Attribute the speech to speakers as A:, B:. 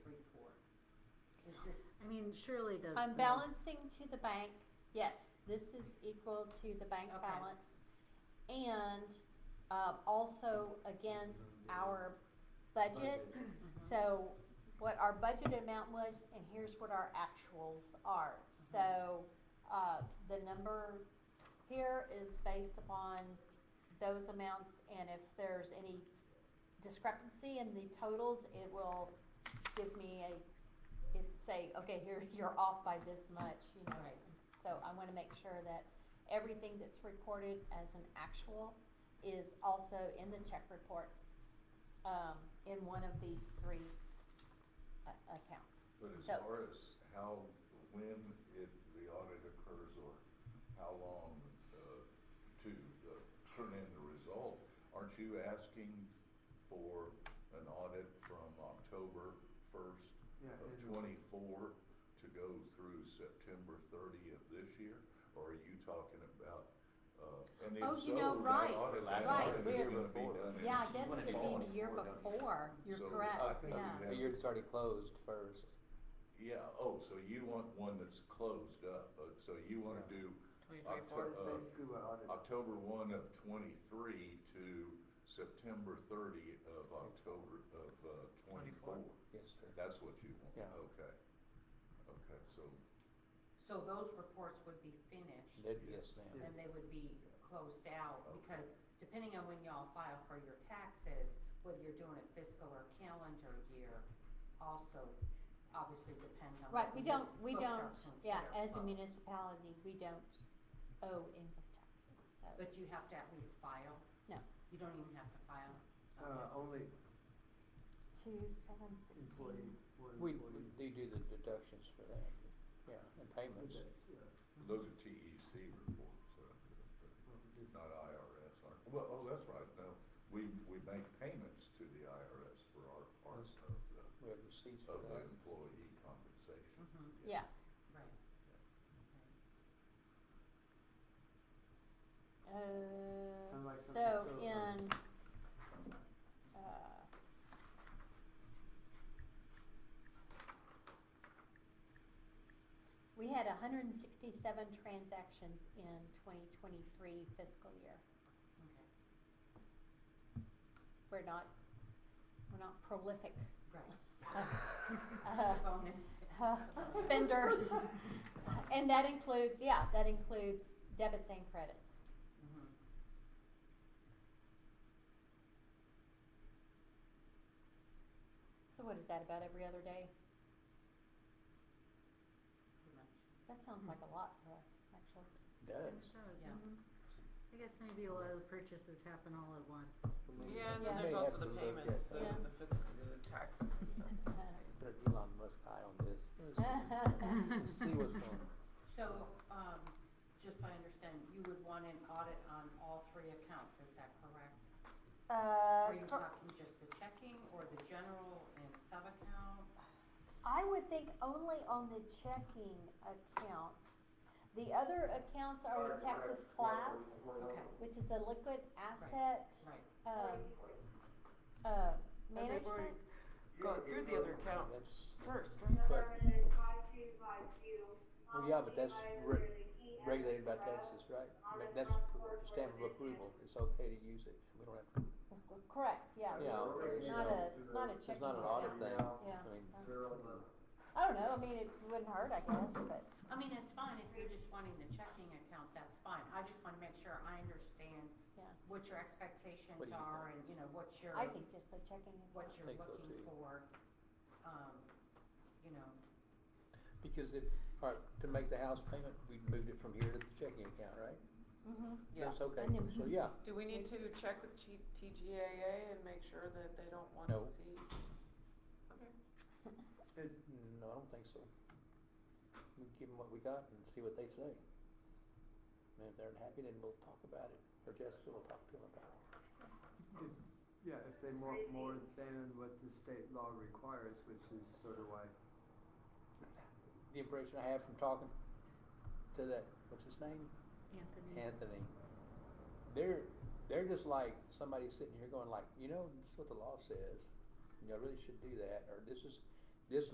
A: this, I mean, Shirley does.
B: On
A: the-
B: balancing to the bank, yes, this is equal to the bank
A: Okay.
B: balance. And, um, also against our budget.
A: Mhm.
B: So what our budget amount was, and here's what our actuals are. So, uh, the number here is based upon those amounts, and if there's any discrepancy in the totals, it will give me a, it say, okay, here, you're off by this much, you know.
A: Right.
B: So I wanna make sure that everything that's recorded as an actual is also in the check report, um, in one of these three a- accounts.
C: But as
B: So-
C: far as how, when it, the audit occurs or how long, uh, to, uh, turn in the result, aren't you asking for an audit from October first
D: Yeah,
C: of
D: annual.
C: twenty-four to go through September thirty of this year? Or are you talking about, uh, and if
B: Oh,
C: so,
B: you know,
C: that
B: right,
C: audit, that
B: right,
C: audit is
B: we're-
C: gonna be done in.
B: Yeah, I guess
E: When
B: it
E: it's
B: would be
E: all
B: the year
E: before, don't you?
B: before, you're
C: So, I
B: correct,
C: think
B: yeah.
C: you
E: But yours is already closed first.
C: Yeah, oh, so you want one that's closed up, uh, so you wanna
E: Yeah.
C: do
D: Well, it's
C: Octo- uh,
D: basically what audit.
C: October one of twenty-three to September thirty of October of uh, twenty-four.
E: Yes, sir.
C: That's what you want,
E: Yeah.
C: okay. Okay, so,
F: So those reports would be finished
E: That- yes, ma'am.
F: and they would be closed out because depending on when y'all file for your taxes, whether you're doing it fiscal or calendar year, also obviously depends on.
B: Right, we
F: when
B: don't,
F: your
B: we
F: books are
B: don't, yeah,
F: considered
B: as a
F: closed.
B: municipality, we don't owe income taxes, so,
F: But you have to at least file?
B: No.
F: You don't even have to file?
D: Uh, only
B: two, seven, fifteen.
D: employee, one
E: We,
D: employee.
E: we do do the deductions for that, yeah, and
D: But
E: payments.
D: that's, yeah,
C: those are TEC reports, so,
D: well, we just-
C: not IRS, aren't, well, oh, that's right, no. We, we make payments to the IRS for our, our,
E: Yes.
C: of the,
E: We have receipts for
C: of the
E: that.
C: employee compensation.
F: Mhm,
B: Yeah,
F: Right.
B: uh,
D: Sounds like something
B: so
D: so, um,
B: in, uh, we had hundred and sixty-seven transactions in twenty twenty-three fiscal year.
F: Okay,
B: We're not, we're not prolific.
F: right.
B: Uh,
F: It's a bonus.
B: uh, spenders. And that includes, yeah, that includes debits and credits.
F: Mhm.
B: So what is that, about every other day?
F: Pretty much.
B: That
D: Hmm.
B: sounds like a lot for us, actually.
A: It
E: Does.
A: does,
F: Yeah.
A: mhm. I guess maybe a lot of the purchases happen all at once.
G: Yeah, and
B: Yeah.
G: then
E: May
G: there's
E: have
G: also
E: to
G: the
E: look
G: payments,
E: at
G: the,
E: that.
B: Yeah.
G: the fiscal, the taxes and stuff.
E: Put an Elon Musk eye on this. Let's see- let's see what's going on.
F: So, um, just so I understand, you would want an audit on all three accounts, is that correct? Are you
B: Uh, cor-
F: talking just the checking or the general and sub-account?
B: I would think only on the checking account. The other accounts are the Texas class,
F: Okay,
B: which is a liquid asset,
F: right.
B: um, uh,
G: And they've already
B: management.
G: gone through the other account
E: That's,
G: first, right?
E: but,
H: Well, yeah, but that's re-
E: regulated by Texas, right? But That's pr- stamp of approval, it's okay to use it, we don't have to,
B: Correct, yeah.
E: Yeah.
B: It's not a, it's not a checking.
E: it's not
B: account.
E: an audit thing,
B: Yeah.
E: I mean,
B: I don't know, I mean, it wouldn't hurt, I guess, but.
F: I mean, it's fine, if you're just wanting the checking account, that's fine. I just wanna make sure I understand
B: Yeah.
F: what your expectations
E: What do you
F: are and, you know, what your,
B: I think just the checking. and
F: what you're
E: think so,
F: looking
E: too.
F: for, um, you know.
E: because if, all right, to make the house payment, we moved it from here to the checking account, right?
F: Mm-hmm.
B: Mhm.
G: Yeah.
E: That's okay,
B: And then-
E: so yeah,
G: Do we need to check with T- TGAA and make sure that they don't want to
E: No.
G: see? Okay,
E: no, I don't think so. We give them what we got and see what they say. And if they're unhappy, then we'll talk about it, or Jessica will talk to them about it.
D: Yeah, if they want more than what the state law requires, which is sort of why,
E: The impression I have from talking to that, what's his name?
A: Anthony?
E: Anthony. They're they're just like somebody sitting here going like, you know, this is what the law says. and Y'all really should do that, or this is